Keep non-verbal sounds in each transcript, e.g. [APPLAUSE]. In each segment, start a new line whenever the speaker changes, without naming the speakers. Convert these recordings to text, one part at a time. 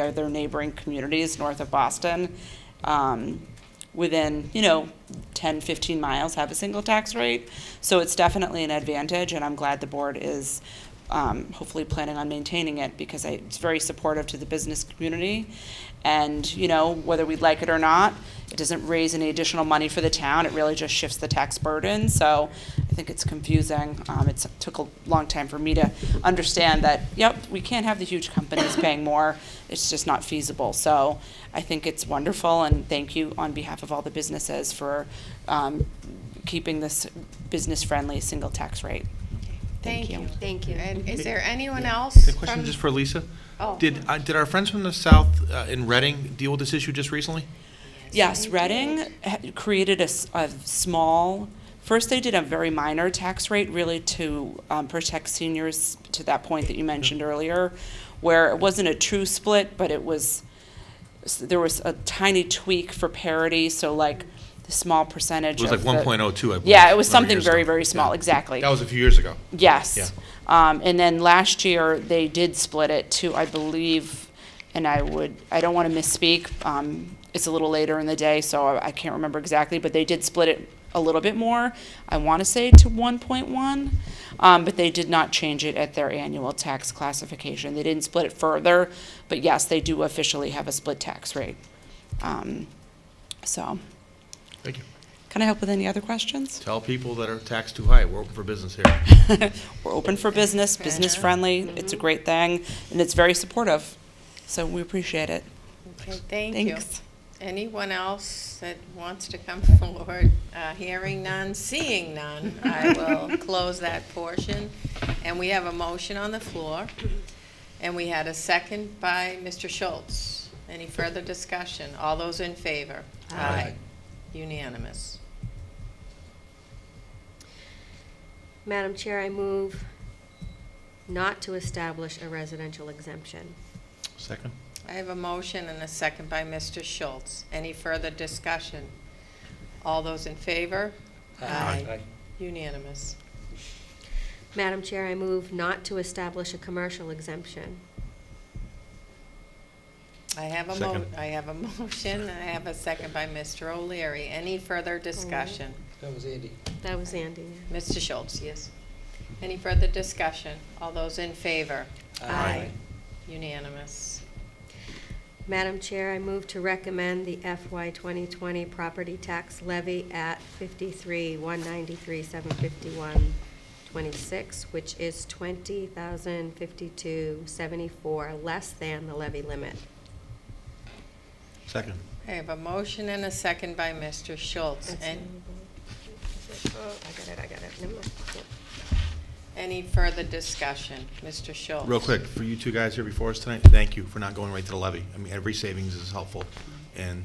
are their neighboring communities north of Boston, um, within, you know, 10, 15 miles have a single tax rate. So it's definitely an advantage, and I'm glad the board is um, hopefully planning on maintaining it because I- it's very supportive to the business community. And, you know, whether we like it or not, it doesn't raise any additional money for the town. It really just shifts the tax burden. So I think it's confusing. Um, it's took a long time for me to understand that, yep, we can't have the huge companies paying more. It's just not feasible. So I think it's wonderful and thank you on behalf of all the businesses for, um, keeping this business-friendly single tax rate. Thank you.
Thank you.
And is there anyone
A
else
question
from,
just for Lisa?
Oh.
Did, uh, did our friends from the south uh, in Reading deal with this issue just recently?
Yes, Reading ha- created a, s- a small, first they did a very minor tax rate, really to um, protect seniors, to that point that you mentioned earlier, where it wasn't a true split, but it was, s- there was a tiny tweak for parity, so like the small percentage
It was
of
like
the-
1.02, I believe.
Yeah, it was
a number of
something
years
very,
ago.
very small,
Yeah.
exactly.
That was a few years ago.
Yes.
Yeah.
Um, and then last year, they did split it to, I believe, and I would, I don't want to misspeak, um, it's a little later in the day, so I, I can't remember exactly, but they did split it a little bit more. I want to say to one point one, um, but they did not change it at their annual tax classification. They didn't split it further, but yes, they do officially have a split tax rate. Um, so,
Thank you.
can I help with any other questions?
Tell people that are taxed too high, we're open for business here.
[LAUGHS] We're open for business, business friendly. It's a great thing, and it's very supportive. So we appreciate it.
Okay, thank you.
Thanks.
Anyone else that wants to come [LAUGHS] forward? Uh, Hearing none, seeing none, I will close that portion. And we have a motion on the floor, and we had a second by Mr. Schultz. Any further discussion? All those in favor?
Aye.
Unanimous.
Madam Chair, I move not to establish a residential exemption.
Second?
I have a motion and a second by Mr. Schultz. Any further discussion? All those in favor? Unanimous.
Madam Chair, I move not to establish a commercial exemption.
I have a mo,
Second.
I have a [LAUGHS] motion, and I have a second by Mr. O'Leary. Any further discussion?
Mm-hmm.
That was Andy.
That was Andy.
Mr. Schultz, yes. Any further discussion? All those in favor?
Aye.
Unanimous.
Madam Chair, I move to recommend the FY 2020 property tax levy at 53, 193, 751, 26, which is 20,052.74, less than the levy limit.
Second.
I have a motion and a second by Mr. Schultz. And
Oh, I got it, I got it. Never mind. Yep.
any further discussion? Mr. Schultz?
Real quick, for you two guys here before us tonight, thank you for not going right to the levy. I mean, every savings is helpful, and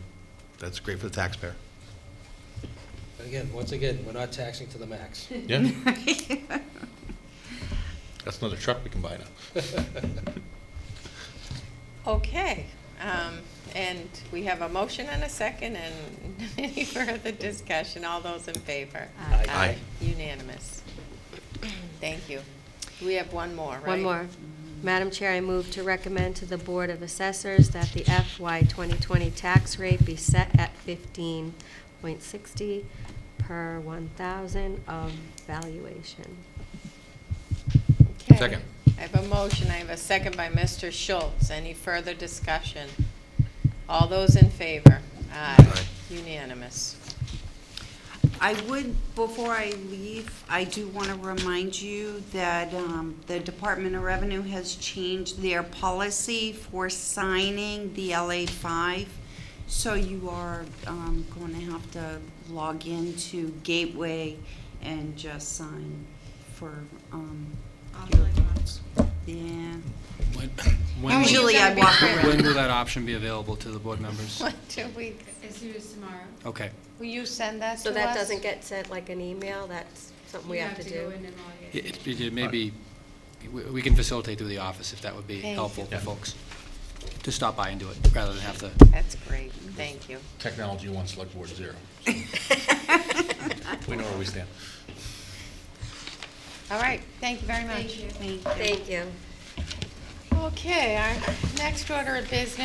that's great for the taxpayer.
But again, once again, we're not taxing to the
[LAUGHS]
max.
Yeah? That's another truck we can buy now. [LAUGHS]
Okay, um, and we have a motion and a second, and [LAUGHS] any further discussion? All those in favor?
Aye.
Aye.
Unanimous. Thank you. We have one more, right?
One more. Madam Chair, I move to recommend to the Board of Assessors that the FY 2020 tax rate be set at 15.60 per 1,000 of valuation.
Okay.
Second.
I have a motion, I have a second by Mr. Schultz. Any further discussion? All those in favor? Aye.
Aye.
Unanimous. [LAUGHS]
I would, before I leave, I do want to remind you that um, the Department of Revenue has changed their policy for signing the LA five. So you are um, going to have to log into Gateway and just sign for um, your accounts. Yeah.
When- when will-
Usually I walk around.
When will that option be available to the board members?
What do we,
As soon as tomorrow.
Okay.
will you send that to us?
So that doesn't get sent like an email, that's something we
You
have to
go
do.
in and log in.
It, it- it may be, we- we can facilitate through the office if that would be
Thank
helpful
you.
for folks to stop by and do it, rather than have to.
That's great, thank you.
Technology wants select board zero. We know where we stand.
All right, thank you very much.
Thank you.
Thank you.
Okay, our next order of business